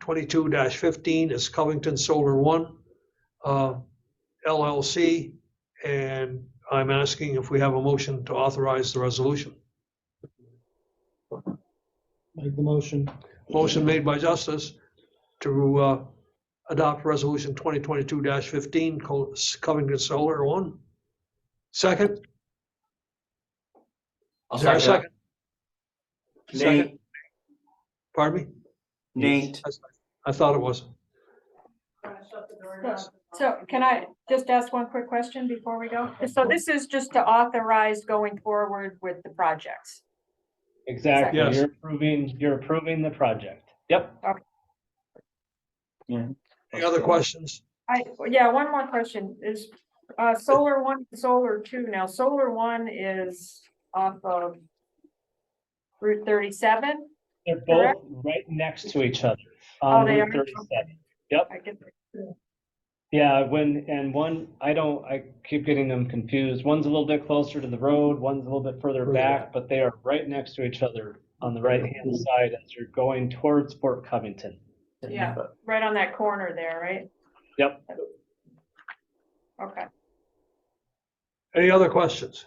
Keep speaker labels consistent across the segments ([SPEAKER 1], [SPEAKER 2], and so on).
[SPEAKER 1] twenty-two fifteen is Covington Solar One uh, LLC. And I'm asking if we have a motion to authorize the resolution.
[SPEAKER 2] Make the motion.
[SPEAKER 1] Motion made by Justice to uh, adopt Resolution 2022-15, Co- Covington Solar One. Second,
[SPEAKER 3] I'll
[SPEAKER 1] is there a second?
[SPEAKER 3] second that.
[SPEAKER 1] Second.
[SPEAKER 3] Nate,
[SPEAKER 1] Pardon me?
[SPEAKER 3] Nate,
[SPEAKER 1] I thought it was.
[SPEAKER 4] So can I just ask one quick question before we go? So this is just to authorize going forward with the projects.
[SPEAKER 5] Exactly.
[SPEAKER 1] Yes.
[SPEAKER 5] You're approving, you're approving the project. Yep.
[SPEAKER 1] Any other questions?
[SPEAKER 4] I, yeah, one more question is, uh, solar one, solar two now, solar one is off of Route thirty-seven?
[SPEAKER 5] They're both
[SPEAKER 4] Correct.
[SPEAKER 5] right next to each other
[SPEAKER 4] Oh,
[SPEAKER 5] on
[SPEAKER 4] they
[SPEAKER 5] Route
[SPEAKER 4] are.
[SPEAKER 5] 37.
[SPEAKER 4] I guess,
[SPEAKER 5] Yeah, when, and one, I don't, I keep getting them confused. One's a little bit closer to the road, one's a little bit further
[SPEAKER 1] Further
[SPEAKER 5] back, but they are right next to each other on the right-hand side as you're going towards Fort Covington.
[SPEAKER 4] Yeah, right on that corner there, right?
[SPEAKER 5] Yep.
[SPEAKER 4] Okay,
[SPEAKER 1] Any other questions?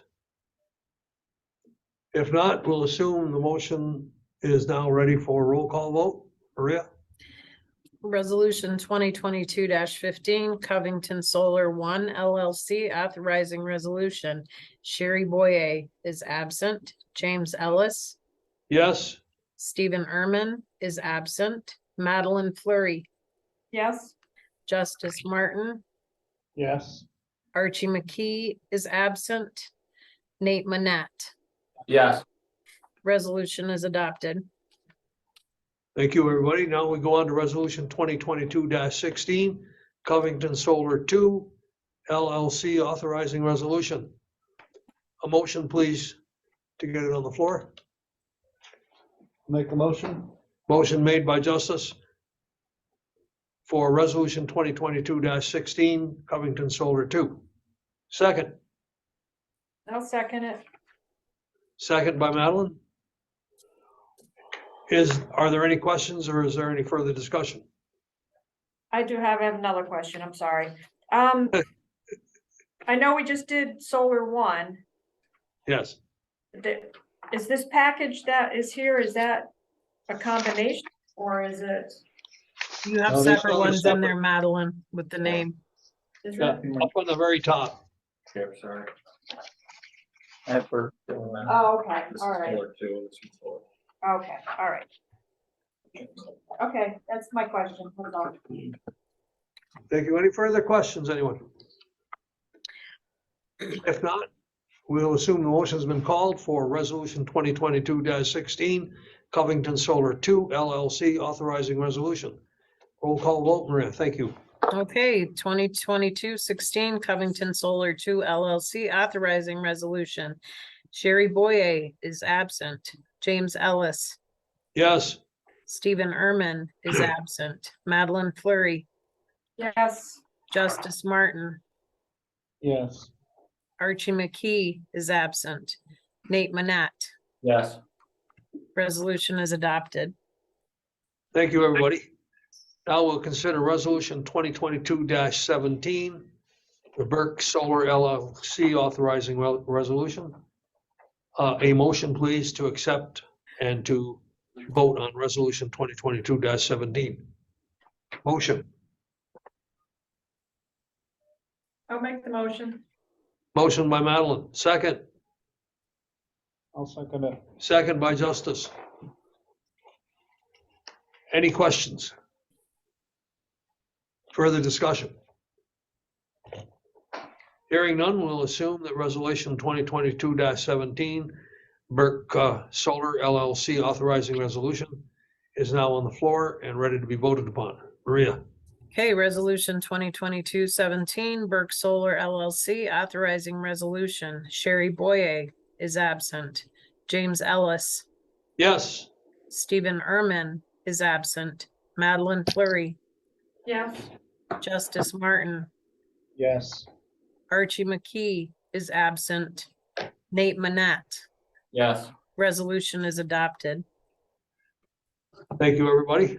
[SPEAKER 1] If not, we'll assume the motion is now ready for a roll call vote. Maria?
[SPEAKER 6] Resolution twenty twenty-two fifteen, Covington Solar One LLC authorizing resolution. Sherry Boyer is absent. James Ellis,
[SPEAKER 1] Yes,
[SPEAKER 6] Stephen Erman is absent. Madeline Flurry,
[SPEAKER 4] yes,
[SPEAKER 6] Justice Martin,
[SPEAKER 5] Yes.
[SPEAKER 6] Archie McKee is absent. Nate Manette.
[SPEAKER 3] yes,
[SPEAKER 6] Resolution is adopted.
[SPEAKER 1] thank you, everybody. Now we go on to Resolution 2022-16, Covington Solar 2 LLC authorizing resolution. A motion, please, to get it on the floor.
[SPEAKER 2] Make the motion.
[SPEAKER 1] Motion made by Justice for Resolution 2022-16, Covington Solar 2. Second,
[SPEAKER 4] I'll second it.
[SPEAKER 1] second by Madeline. Is, are there any questions or is there any further discussion?
[SPEAKER 4] I do have another question, I'm sorry. Um, I know we just did solar one.
[SPEAKER 1] Yes,
[SPEAKER 4] The- Is this package that is here, is that a combination or is it?
[SPEAKER 6] You
[SPEAKER 1] No,
[SPEAKER 6] have
[SPEAKER 1] these
[SPEAKER 6] separate
[SPEAKER 1] are
[SPEAKER 6] ones in
[SPEAKER 1] separate.
[SPEAKER 6] there, Madeline, with the name.
[SPEAKER 4] is
[SPEAKER 1] yeah,
[SPEAKER 4] it-
[SPEAKER 1] up on the very top.
[SPEAKER 3] Here, sorry. I have for.
[SPEAKER 4] Oh, okay, all right,
[SPEAKER 3] Two, this is four.
[SPEAKER 4] okay, all right. Okay, that's my question. Hold on.
[SPEAKER 1] Thank you. Any further questions, anyone? If not, we'll assume the motion's been called for Resolution 2022-16, Covington Solar 2 LLC authorizing resolution. Roll call vote, Maria, thank you.
[SPEAKER 6] Okay, 2022-16 Covington Solar Two LLC authorizing resolution. Sherry Boye is absent. James Ellis,
[SPEAKER 1] Yes,
[SPEAKER 6] Stephen Erman is absent. Madeline Flurry,
[SPEAKER 4] Yes,
[SPEAKER 6] Justice Martin,
[SPEAKER 5] Yes.
[SPEAKER 6] Archie McKee is absent. Nate Manette,
[SPEAKER 3] Yes,
[SPEAKER 6] resolution is adopted.
[SPEAKER 1] thank you, everybody. Now we'll consider Resolution 2022-17, the Burke Solar LLC authorizing re- resolution. Uh, A motion, please, to accept and to vote on Resolution 2022-17. Motion,
[SPEAKER 4] I'll make the motion.
[SPEAKER 1] motion by Madeline, second,
[SPEAKER 5] I'll second it.
[SPEAKER 1] second by Justice. Any questions? Further discussion? Hearing none, we'll assume that Resolution 2022-17, Burke uh, Solar LLC authorizing resolution is now on the floor and ready to be voted upon. Maria,
[SPEAKER 6] Okay, resolution 2022-17 Burke Solar LLC authorizing resolution. Sherry Boye is absent. James Ellis,
[SPEAKER 1] yes,
[SPEAKER 6] Stephen Erman is absent. Madeline Flurry,
[SPEAKER 4] Yes,
[SPEAKER 6] Justice Martin,
[SPEAKER 5] Yes.
[SPEAKER 6] Archie McKee is absent. Nate Manette,
[SPEAKER 3] yes,
[SPEAKER 6] resolution is adopted.
[SPEAKER 1] thank you, everybody.